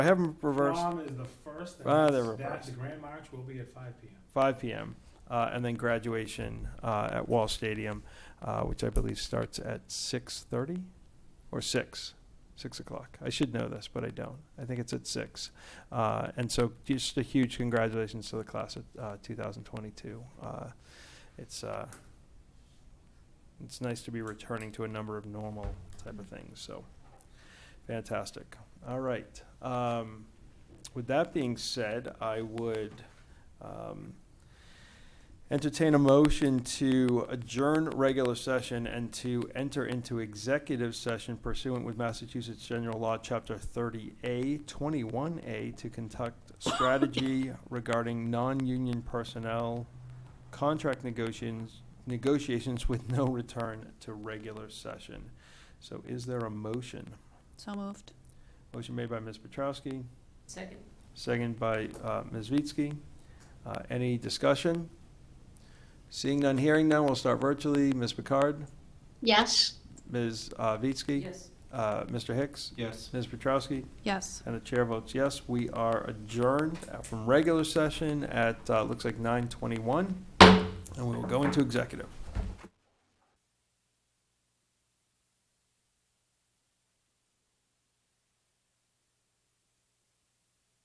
I have them reversed. Prom is the first, and Ah, that's, they're that- the reversed. grand march will be at five P M. 5 p.m. Uh, and then graduation uh, at Wall Stadium, uh, which I believe starts at 6:30 or 6, 6 o'clock. I should know this, but I don't. I think it's at 6. Uh, and so, just a huge congratulations to the class of uh, 2022. Uh, it's uh, it's nice to be returning to a number of normal type of things. So, fantastic. All right. Um, with that being said, I would. Um, Entertain a motion to adjourn regular session and to enter into executive session pursuant with Massachusetts General Law, Chapter 30A, 21A, to conduct strategy regarding non-union personnel, contract negotiations, negotiations with no return to regular session. So is there a motion? So moved. Motion made by Ms. Petrowski, Second. Second by uh, Ms. Vitsky. Uh, Any discussion? Seeing none, hearing none, we'll start virtually. Ms. Picard, Yes. Ms. uh, Vitsky, Yes. uh, Mr. Hicks, Yes. Ms. Petrowski, Yes. and the chair votes yes. We are adjourned from regular session at, uh, looks like 9:21, and we will go into executive.